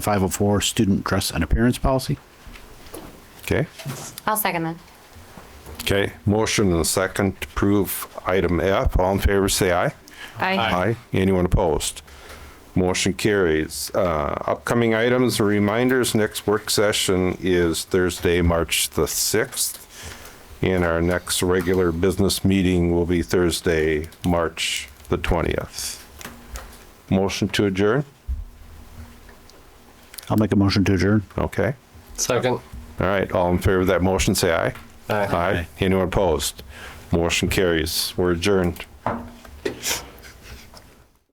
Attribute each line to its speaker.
Speaker 1: 504 student dress and appearance policy.
Speaker 2: Okay.
Speaker 3: I'll second that.
Speaker 2: Okay. Motion and second to approve item F. All in favor, say aye.
Speaker 3: Aye.
Speaker 2: Anyone opposed? Motion carries. Uh, upcoming items and reminders, next work session is Thursday, March the 6th. And our next regular business meeting will be Thursday, March the 20th. Motion to adjourn?
Speaker 1: I'll make a motion to adjourn.
Speaker 2: Okay.
Speaker 4: Second.
Speaker 2: All right. All in favor of that motion, say aye.
Speaker 4: Aye.
Speaker 2: Aye. Anyone opposed? Motion carries. We're adjourned.